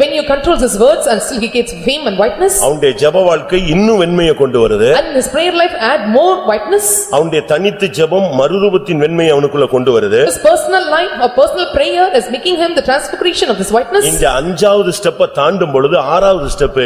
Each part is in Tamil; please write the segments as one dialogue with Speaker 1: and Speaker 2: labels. Speaker 1: When you controls his words and still he gets fame and whiteness
Speaker 2: அவனுடைய ஜெப வாழ்க்கை இன்னும் வெண்மையை கொண்டு வருது
Speaker 1: and his prayer life add more whiteness.
Speaker 2: அவனுடைய தனித்து ஜெபம் மறுரூபத்தின் வெண்மையை அவனுக்குள்ள கொண்டு வருது
Speaker 1: His personal life or personal prayer is making him the transfiguration of this whiteness.
Speaker 2: இந்த அஞ்சாவது ஸ்டெப்ப தாண்டும் பொழுது ஆறாவது ஸ்டெப்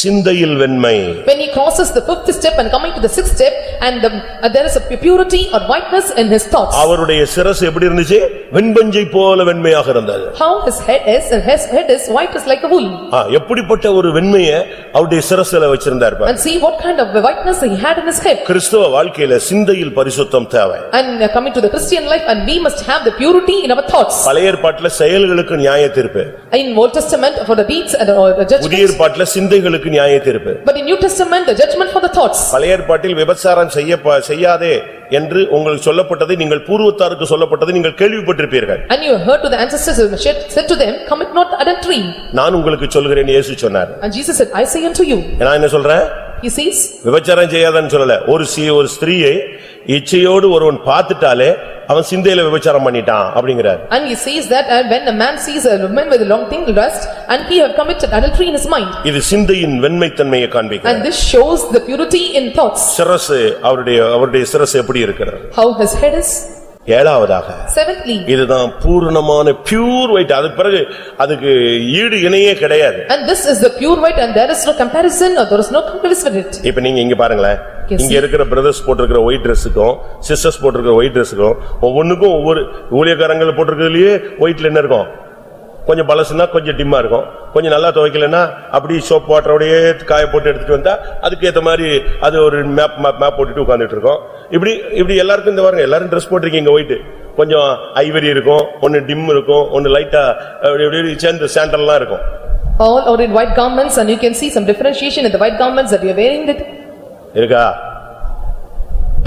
Speaker 2: சிந்தையில் வெண்மை
Speaker 1: When he crosses the fifth step and coming to the sixth step and the- uh, there is a purity or whiteness in his thoughts.
Speaker 2: அவருடைய சிரசு எப்படி இருந்துச்சு வெண்பஞ்சை போல வெண்மையாக இருந்தது
Speaker 1: How his head is and his head is white is like a wool.
Speaker 2: ஆ, எப்படிப்பட்ட ஒரு வெண்மைய அவருடைய சிரசுல வச்சிருந்தார் பாரு.
Speaker 1: And see what kind of whiteness he had in his head.
Speaker 2: கிறிஸ்தவ வாழ்க்கையில சிந்தையில் பரிசுத்தம் தேவை
Speaker 1: And uh, coming to the Christian life and we must have the purity in our thoughts.
Speaker 2: பழைய ஏற்பாட்டுல செயல்களுக்கு நியாய தீர்ப்பு
Speaker 1: In Old Testament for the deeds and uh, the
Speaker 2: புதிய
Speaker 1: judgments.
Speaker 2: ஏற்பாட்டுல சிந்தைகளுக்கு நியாய தீர்ப்பு
Speaker 1: But in New Testament, the judgment for the thoughts.
Speaker 2: பழைய ஏற்பாட்டில் விபச்சாரம் செய்ய செய்யாதே என்று உங்களுக்கு சொல்லப்பட்டதை நீங்கள் பூர்வத்தாருக்கு சொல்லப்பட்டதை நீங்கள் கேள்விப்பட்டிருப்பீர்கள்
Speaker 1: And you heard to the ancestors and said said to them, commit not adultery.
Speaker 2: நான் உங்களுக்கு சொல்கிறேன் இயேசு சொன்னார்
Speaker 1: And Jesus said, I say unto you.
Speaker 2: நான் என்ன சொல்றேன்
Speaker 1: He says,
Speaker 2: விபச்சாரம் செய்யாதன்னு சொல்லல ஒரு சி ஒரு ஸ்திரியை இச்சையோடு ஒருவன் பார்த்துட்டாலே அவன் சிந்தையில விபச்சாரம் பண்ணிட்டான் அப்படிங்கிறார்
Speaker 1: and he says that and when a man sees a woman with a long thing lust and he have committed adultery in his mind.
Speaker 2: இது சிந்தையின் வெண்மைத்தன்மையை காண்பிக்கிறது
Speaker 1: And this shows the purity in thoughts,
Speaker 2: சிரசு அவருடைய அவருடைய சிரசு எப்படி இருக்கிறது
Speaker 1: how his head is.
Speaker 2: ஏழாவதாக
Speaker 1: Seventhly,
Speaker 2: இதுதான் பூரணமான பியூர் ஒயிட் அதுக்கு பிறகு அதுக்கு ஈடு இணையே கிடையாது
Speaker 1: and this is the pure white and there is no comparison or there is no comparison with it.
Speaker 2: இப்ப நீங்க இங்க பாருங்களேன்
Speaker 1: Yes,
Speaker 2: இங்க இருக்கிற பிரதர்ஸ் போட்டிருக்கிற ஒயிட் ட்ரெஸ்ஸுக்கும் சிஸ்டர்ஸ் போட்டிருக்கிற ஒயிட் ட்ரெஸ்ஸுக்கும் ஒவ்வொன்றுக்கும் ஒவ்வொரு ஊழியக்காரங்கள் போட்டிருக்கிறதுலயே ஒயிட்ல என்ன இருக்கும் கொஞ்சம் பலசுனா கொஞ்சம் டிம்மா இருக்கும் கொஞ்சம் நல்லா துவைக்கலன்னா அப்படி சோப் வாட்டரோடயே காய போட்டு எடுத்துட்டு வந்தா அதுக்கு ஏத்த மாதிரி அது ஒரு மேப் மேப் மேப் போட்டுட்டு உட்கார்ந்துட்டு இருக்கோம் இப்படி இப்படி எல்லாருக்கும் இந்த பாருங்க எல்லாரும் ட்ரெஸ் போட்டிருக்கீங்க ஒயிட் கொஞ்சம் ஐவரி இருக்கும் ஒன்னு டிம் இருக்கும் ஒன்னு லைட்டா அப்படி இப்படி சேர்ந்து சாண்டல்லாம் இருக்கும்
Speaker 1: All are in white garments and you can see some differentiation in the white garments that you are wearing it.
Speaker 2: இருக்கா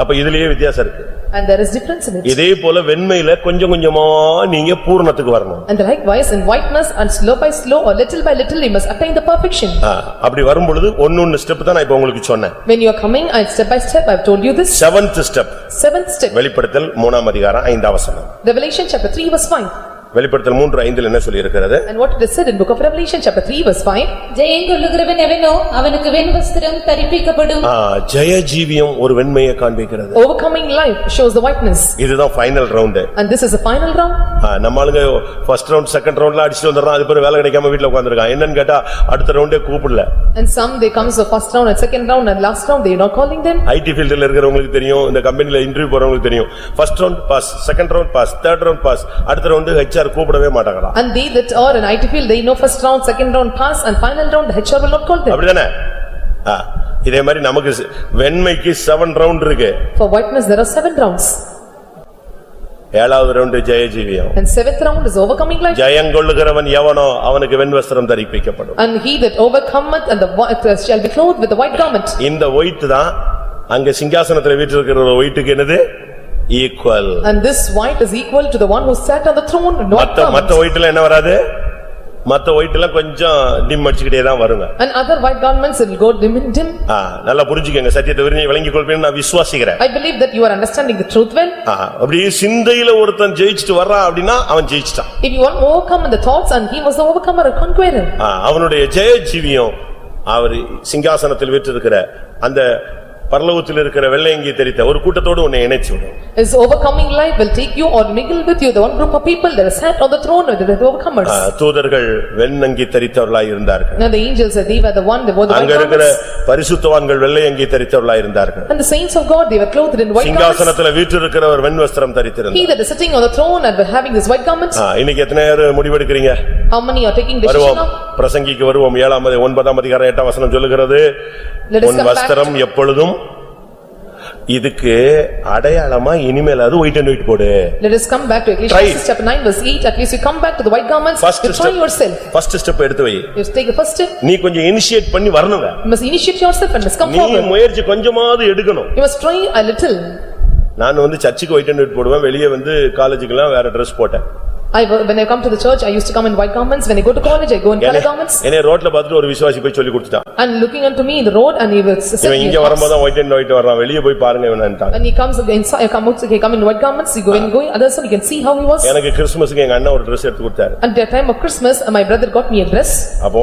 Speaker 2: அப்ப இதுலயே வித்தியாசம் இருக்கு
Speaker 1: And there is difference in it.
Speaker 2: இதே போல வெண்மையில கொஞ்சம் கொஞ்சமா நீங்க பூரணத்துக்கு வரணும்
Speaker 1: And likewise in whiteness and slow by slow or little by little you must attain the perfection.
Speaker 2: ஆ, அப்படி வரும்பொழுது ஒன்னொன்னு ஸ்டெப் தான் நான் இப்ப உங்களுக்கு சொன்னேன்
Speaker 1: When you are coming and step by step, I have told you this.
Speaker 2: Seventh step
Speaker 1: Seventh step,
Speaker 2: வெளிப்படுத்தல் மூணாம் அதிகாரம் ஐந்தாம் வசனம்
Speaker 1: Revelation chapter 3 verse 5.
Speaker 2: வெளிப்படுத்தல் மூன்று ஐந்தில் என்ன சொல்லியிருக்கிறது
Speaker 1: And what it is said in book of Revelation chapter 3 verse 5.
Speaker 3: ஜெயங்கொள்ளுகிறவன் எவனோ அவனுக்கு வெண்வஸ்திரம் தரிப்பிக்கப்படும்
Speaker 2: ஆ, ஜெய ஜீவியம் ஒரு வெண்மையை காண்பிக்கிறது
Speaker 1: Overcoming life shows the whiteness.
Speaker 2: இதுதான் final round
Speaker 1: And this is the final round.
Speaker 2: நம்ம ஆளுங்க ஃபர்ஸ்ட் ரவுண்ட் செகண்ட் ரவுண்ட்ல அடிச்சுட்டு வந்துடுறான் அது பிறகு வேலை கிடைக்காம வீட்டுல உட்காந்துருக்கான் என்னன்னு கேட்டா அடுத்த ரவுண்டே கூப்பிடல
Speaker 1: And some they comes the first round and second round and last round, they are not calling them.
Speaker 2: IT ஃபீல்டில் இருக்கிறவங்களுக்கு தெரியும் இந்த கம்பெனில இன்டர்வியூ போறவங்களுக்கு தெரியும் first round pass second round pass third round pass அடுத்த ரவுண்டு ஹெச்ஆர் கூப்பிடவே மாட்டாங்களாம்
Speaker 1: And they that are in IT field, they know first round, second round pass and final round, the HR will not call them.
Speaker 2: அப்படிதானே? ஆ, இதே மாதிரி நமக்கு சி- வெண்மைக்கு செவன் ரவுண்ட் இருக்கு.
Speaker 1: For whiteness, there are seven rounds.
Speaker 2: ஏழாவது ரவுண்ட் ஜெயஜீவியம்.
Speaker 1: And seventh round is overcoming life.
Speaker 2: ஜெயங்கொள்ளுகிறவன் எவனோ அவனுக்கு வெண்வஸ்திரம் தரிப்பிக்கப்படும்.
Speaker 1: And he that overcometh and the white shall be clothed with the white garment.
Speaker 2: இந்த ஒயிட் தான் அங்க சிங்காசனத்துல வீற்றிருக்கிற ஒரு ஒயிட்டுக்கு என்னது? Equal.
Speaker 1: And this white is equal to the one who sat on the throne and white
Speaker 2: மத்த மத்த
Speaker 1: garment.
Speaker 2: ஒயிட்ல என்ன வராது? மத்த ஒயிட்ல கொஞ்சம் டிம் அடிச்சுக்கிட்டே தான் வருங்க.
Speaker 1: And other white garments will go dim and dim.
Speaker 2: ஆ, நல்லா புரிஞ்சுக்கங்க சத்தியத்தை விரும்பி விளங்கிக் கொள்வேன் நான் விசுவாசிக்கிறேன்.
Speaker 1: I believe that you are understanding the truth well.
Speaker 2: ஆ, அப்படியே சிந்தையில ஒருத்தன் ஜெயிச்சிட்டு வர்றான் அப்படின்னா அவன் ஜெயிச்சிட்டான்.
Speaker 1: If you want to overcome in the thoughts and he was the overcomer or conqueror.
Speaker 2: ஆ, அவனுடைய ஜெய ஜீவியம் அவர் சிங்காசனத்தில் விற்றிருக்கிற அந்த பரலோகத்தில் இருக்கிற வெள்ளையங்கி தெரித்த ஒரு கூட்டத்தோடு உன்னை இணைச்சு விடும்
Speaker 1: His overcoming life will take you or mingle with you the one group of people that sat on the throne with the
Speaker 2: ah,
Speaker 1: overcomers.
Speaker 2: தூதர்கள் வெண்ணங்கி தரித்தவர்களாய் இருந்தார்கள்
Speaker 1: Now the angels, they were the one, they were the white
Speaker 2: அங்க இருக்கிற
Speaker 1: garments.
Speaker 2: பரிசுத்தவான்கள் வெள்ளையங்கி தரித்தவர்களாய் இருந்தார்கள்
Speaker 1: And the saints of God, they were clothed in white garments.
Speaker 2: சிங்காசனத்தில் வீற்றிருக்கிறவர் வெண் வஸ்திரம்
Speaker 1: He
Speaker 2: தரித்திருந்தார்
Speaker 1: that is sitting on the throne and having this white garment,
Speaker 2: ஆ, இன்னைக்கு எத்தனை பேர் முடிவெடுக்கிறீங்க
Speaker 1: how many are taking decision
Speaker 2: வருவோம்
Speaker 1: now?
Speaker 2: பிரசங்கிக்கு வருவோம் ஏழாம் அதி- ஒன்பதாம் அதிகாரம் எட்டாம் வசனம் சொல்லுகிறது
Speaker 1: Let us
Speaker 2: உன்
Speaker 1: come back.
Speaker 2: வஸ்திரம் எப்பொழுதும் இதுக்கு அடையாளமா இனிமேல் அது ஒயிட் அண்ட் ஒயிட் போடு
Speaker 1: Let us come back to Ecclesiastes chapter 9 verse 8, at least you come back to the white garments,
Speaker 2: First
Speaker 1: you try
Speaker 2: step.
Speaker 1: yourself.
Speaker 2: First step எடுத்து வை
Speaker 1: You take the first step,
Speaker 2: நீ கொஞ்சம் இனிஷியேட் பண்ணி வரணுங்க
Speaker 1: you must initiate yourself and must come
Speaker 2: நீ
Speaker 1: forward.
Speaker 2: முயற்சி கொஞ்சமாவது எடுக்கணும்
Speaker 1: You must try a little.
Speaker 2: நான் வந்து சர்ச்சுக்கு ஒயிட் அண்ட் ஒயிட் போடுவேன் வெளியே வந்து காலேஜுக்குலாம் வேற ட்ரெஸ் போட்டேன்
Speaker 1: I, wa- when I come to the church, I used to come in white garments, when I go to college, I go in color garments.
Speaker 2: என்னை ரோட்ல பார்த்துட்டு ஒரு விசுவாசி போய் சொல்லி கொடுத்துட்டான்
Speaker 1: And looking unto me in the road and he will s- send
Speaker 2: இவன்
Speaker 1: me
Speaker 2: இங்க வரும்போது
Speaker 1: across.
Speaker 2: தான் ஒயிட் அண்ட் ஒயிட் வர்றான் வெளியே போய் பாருங்க இவனான்ட்டாங்க
Speaker 1: When he comes inside, come out, he come in white garments, he go in going, others, you can see how he was.
Speaker 2: எனக்கு கிறிஸ்துமஸ்க்கு எங்க அண்ணன் ஒரு Dress எடுத்து கொடுத்தாரு
Speaker 1: And at the time of Christmas, my brother got me a dress.
Speaker 2: அப்போ